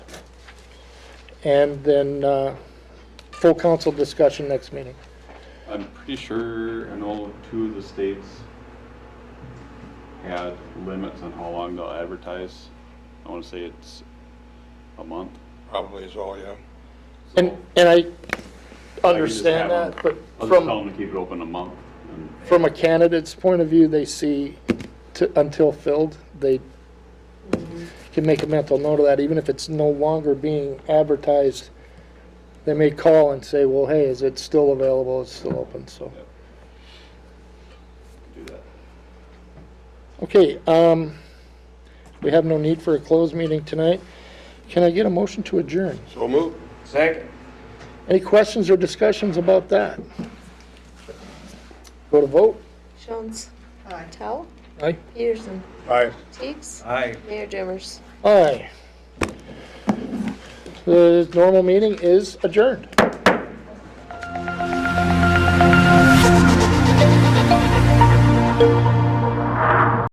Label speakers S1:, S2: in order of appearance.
S1: and then uh, full council discussion next meeting.
S2: I'm pretty sure I know two of the states had limits on how long they'll advertise. I want to say it's a month.
S3: Probably is all, yeah.
S2: So
S1: And, and I
S2: I can just
S1: understand
S2: have them-
S1: that, but
S2: I'll just tell
S1: from,
S2: them to keep it open a month. and-
S1: from a candidate's point of view, they see to- until filled, they can make a mental note of that, even if it's no longer being advertised, they may call and say, well, hey, is it still available, it's still open, so.
S2: Yep. Do that.
S1: Okay, um, we have no need for a closed meeting tonight. Can I get a motion to adjourn?
S3: So move.
S4: Second.
S1: Any questions or discussions about that? Go to vote?
S5: Jones. Towle.
S1: Aye.
S5: Peterson.
S3: Aye.
S5: Teags.
S4: Aye.
S5: Mayor Dimmers.
S1: Aye. The normal meeting is adjourned.